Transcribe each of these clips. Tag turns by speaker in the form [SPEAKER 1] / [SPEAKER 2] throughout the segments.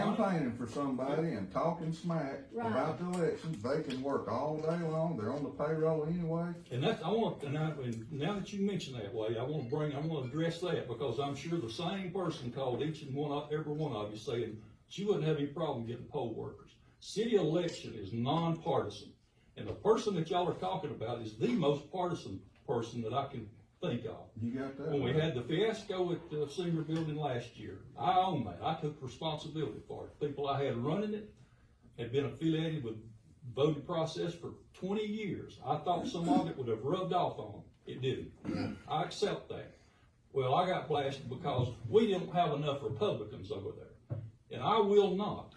[SPEAKER 1] campaigning for somebody and talking smack
[SPEAKER 2] Right.
[SPEAKER 1] about the elections, they can work all day long, they're on the payroll anyway.
[SPEAKER 3] And that, I want, and I, and now that you mention that, Wade, I wanna bring, I wanna address that, because I'm sure the same person called each and one, of- every one of you saying, she wouldn't have any problem getting poll workers. City election is nonpartisan, and the person that y'all are talking about is the most partisan person that I can think of.
[SPEAKER 1] You got that?
[SPEAKER 3] When we had the fiasco at the senior building last year, I own that, I took responsibility for it. People I had running it had been affiliated with voting process for twenty years. I thought some of it would have rubbed off on them, it didn't. I accept that. Well, I got blasted because we didn't have enough Republicans over there. And I will not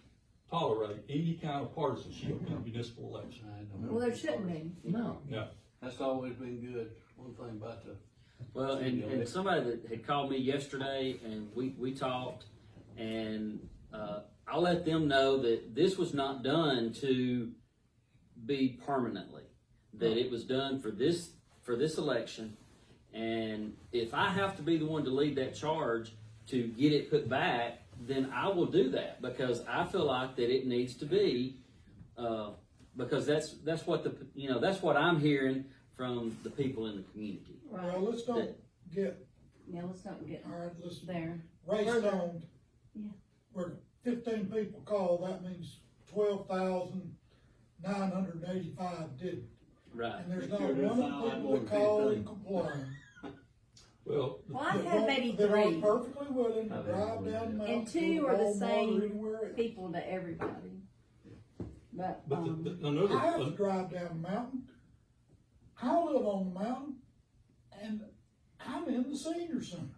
[SPEAKER 3] tolerate any kind of partisanship in municipal election.
[SPEAKER 2] Well, there shouldn't be.
[SPEAKER 1] No,
[SPEAKER 3] No,
[SPEAKER 4] That's always been good, one thing about the.
[SPEAKER 5] Well, and, and somebody that had called me yesterday and we, we talked and, uh, I let them know that this was not done to be permanently. That it was done for this, for this election. And if I have to be the one to lead that charge to get it put back, then I will do that because I feel like that it needs to be, uh, because that's, that's what the, you know, that's what I'm hearing from the people in the community.
[SPEAKER 6] Well, let's don't get,
[SPEAKER 2] Yeah, let's not get
[SPEAKER 6] all right, let's
[SPEAKER 2] there.
[SPEAKER 6] race down.
[SPEAKER 2] Yeah.
[SPEAKER 6] Where fifteen people called, that means twelve thousand nine hundred and eighty-five didn't.
[SPEAKER 5] Right.
[SPEAKER 6] And there's not
[SPEAKER 4] Sure, there's
[SPEAKER 6] one
[SPEAKER 4] not a lot
[SPEAKER 6] people
[SPEAKER 4] more
[SPEAKER 6] that called and
[SPEAKER 4] people.
[SPEAKER 6] complained.
[SPEAKER 3] well,
[SPEAKER 2] Well, I
[SPEAKER 6] That
[SPEAKER 2] had
[SPEAKER 6] won't-
[SPEAKER 2] maybe
[SPEAKER 6] that aren't
[SPEAKER 2] three
[SPEAKER 6] Perfectly willing to
[SPEAKER 4] I
[SPEAKER 6] drive
[SPEAKER 4] think
[SPEAKER 6] down
[SPEAKER 4] we-
[SPEAKER 6] mountain.
[SPEAKER 2] And two are the same
[SPEAKER 6] same.
[SPEAKER 2] people to everybody. But,
[SPEAKER 3] but the-
[SPEAKER 2] um,
[SPEAKER 3] the- another.
[SPEAKER 6] I have to drive down the mountain. I live on the mountain and I'm in the senior center.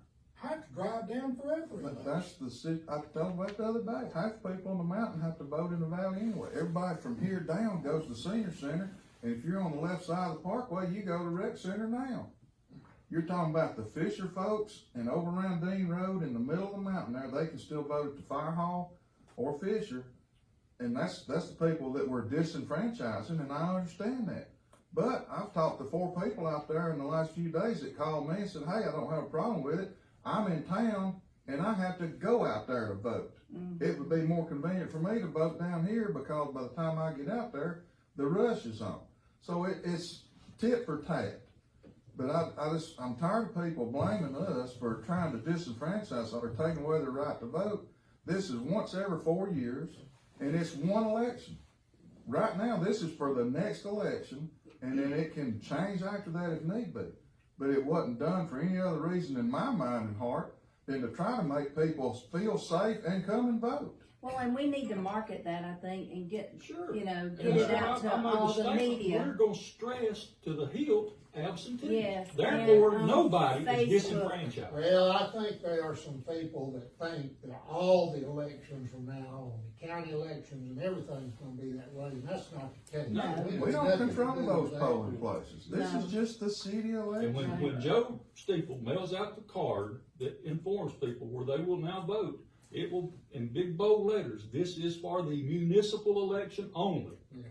[SPEAKER 6] I have to drive down forever.
[SPEAKER 1] but that's the city, I told about the other day, half the people on the mountain have to vote in the valley anyway. Everybody from here down goes to the senior center, and if you're on the left side of the parkway, you go to rec center now. You're talking about the Fisher folks and over around Dean Road in the middle of the mountain there, they can still vote at the fire hall or Fisher. And that's, that's the people that we're disenfranchising, and I understand that. But I've talked to four people out there in the last few days that called me and said, hey, I don't have a problem with it. I'm in town and I have to go out there to vote. It would be more convenient for me to vote down here because by the time I get out there, the rush is on. So it, it's tit for tat. But I, I just, I'm tired of people blaming us for trying to disenfranchise or taking away their right to vote. This is once every four years and it's one election. Right now, this is for the next election, and then it can change after that if need be. But it wasn't done for any other reason in my mind and heart than to try to make people feel safe and come and vote.
[SPEAKER 2] well, and we need to market that, I think, and get,
[SPEAKER 3] Sure.
[SPEAKER 2] you know,
[SPEAKER 3] And
[SPEAKER 2] get it
[SPEAKER 3] so
[SPEAKER 2] out
[SPEAKER 3] I- I
[SPEAKER 2] to
[SPEAKER 3] made a
[SPEAKER 2] all the
[SPEAKER 3] statement, We're
[SPEAKER 2] media.
[SPEAKER 3] gonna stress to the hilt absentee.
[SPEAKER 2] Yes,
[SPEAKER 3] Therefore,
[SPEAKER 2] and on
[SPEAKER 3] nobody
[SPEAKER 2] Facebook.
[SPEAKER 3] is disenfranchised.
[SPEAKER 7] Well, I think there are some people that think that all the elections from now on, the county elections and everything's gonna be that way, and that's not the case.
[SPEAKER 3] No.
[SPEAKER 7] It
[SPEAKER 1] We
[SPEAKER 7] has
[SPEAKER 1] don't
[SPEAKER 7] nothing to
[SPEAKER 1] control
[SPEAKER 7] do with
[SPEAKER 1] those
[SPEAKER 7] that.
[SPEAKER 1] polling places. This is just the city
[SPEAKER 3] And when,
[SPEAKER 1] election.
[SPEAKER 3] when Joe Steeple mails out the card that informs people where they will now vote, it will, in big bold letters, this is for the municipal election only.
[SPEAKER 7] Yeah.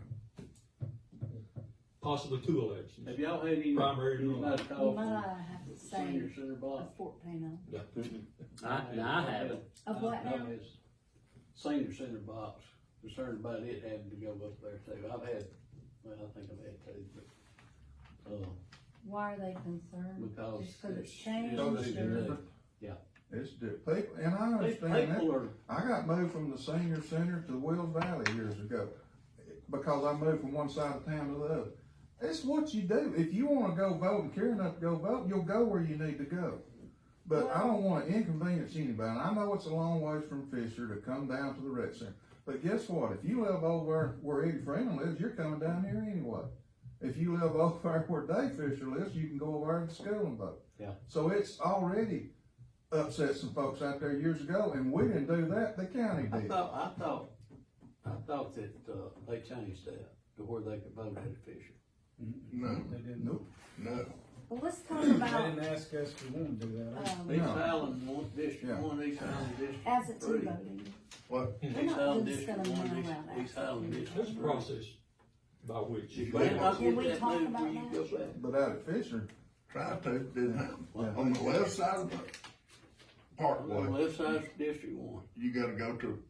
[SPEAKER 3] Possibly two elections.
[SPEAKER 4] Have y'all had any?
[SPEAKER 3] Primary and all
[SPEAKER 4] anybody
[SPEAKER 3] that.
[SPEAKER 4] call
[SPEAKER 2] You
[SPEAKER 4] from
[SPEAKER 2] might have to say
[SPEAKER 4] Senior center
[SPEAKER 2] a
[SPEAKER 4] block?
[SPEAKER 2] fourteen
[SPEAKER 5] I, and I haven't.
[SPEAKER 2] Of what
[SPEAKER 4] I've
[SPEAKER 2] now?
[SPEAKER 4] had Senior center box, concerned about it having to go up there too. I've had, well, I think I've had two, but, uh,
[SPEAKER 2] Why are they concerned?
[SPEAKER 4] because.
[SPEAKER 2] Just 'cause it's
[SPEAKER 4] it's
[SPEAKER 2] changed
[SPEAKER 1] Totally
[SPEAKER 2] or?
[SPEAKER 1] different. It's di- people, and I understand that.
[SPEAKER 4] People are
[SPEAKER 1] I got moved from the senior center to Wills Valley years ago because I moved from one side of town to the other. It's what you do. If you want to go vote and care enough to go vote, you'll go where you need to go. But I don't want to inconvenience anybody. I know it's a long ways from Fisher to come down to the rec center. But guess what? If you live over where Eddie Freeman lives, you're coming down here anyway. If you live over where Dave Fisher lives, you can go over there to school and vote.
[SPEAKER 4] Yeah.
[SPEAKER 1] So it's already upset some folks out there years ago, and we didn't do that, the county
[SPEAKER 4] I
[SPEAKER 1] did.
[SPEAKER 4] thought, I thought, I thought that, uh, they changed that to where they could vote at a Fisher.
[SPEAKER 8] No,
[SPEAKER 1] Nope.
[SPEAKER 8] no.
[SPEAKER 2] Well, let's talk
[SPEAKER 8] They
[SPEAKER 2] about,
[SPEAKER 8] didn't ask us if we wanted to do that.
[SPEAKER 2] um,
[SPEAKER 4] East
[SPEAKER 1] No.
[SPEAKER 4] Island, one district,
[SPEAKER 1] Yeah.
[SPEAKER 4] one East Island district.
[SPEAKER 2] absentee
[SPEAKER 4] three.
[SPEAKER 2] voting.
[SPEAKER 8] What?
[SPEAKER 2] We're
[SPEAKER 4] East
[SPEAKER 2] not
[SPEAKER 4] Island
[SPEAKER 2] just
[SPEAKER 4] district,
[SPEAKER 2] gonna
[SPEAKER 4] one
[SPEAKER 2] allow
[SPEAKER 4] East,
[SPEAKER 2] that.
[SPEAKER 4] East Island district.
[SPEAKER 3] There's a
[SPEAKER 4] three.
[SPEAKER 3] process by which.
[SPEAKER 4] You
[SPEAKER 3] you-
[SPEAKER 4] better not
[SPEAKER 2] Can
[SPEAKER 4] get
[SPEAKER 2] we
[SPEAKER 4] that
[SPEAKER 2] talk
[SPEAKER 4] moved where
[SPEAKER 2] about
[SPEAKER 4] you
[SPEAKER 2] that?
[SPEAKER 4] go back.
[SPEAKER 1] But out at Fisher,
[SPEAKER 8] Tried to, didn't happen. On the left side of the
[SPEAKER 4] On the
[SPEAKER 8] parkway,
[SPEAKER 4] left side of district one.
[SPEAKER 8] you gotta go to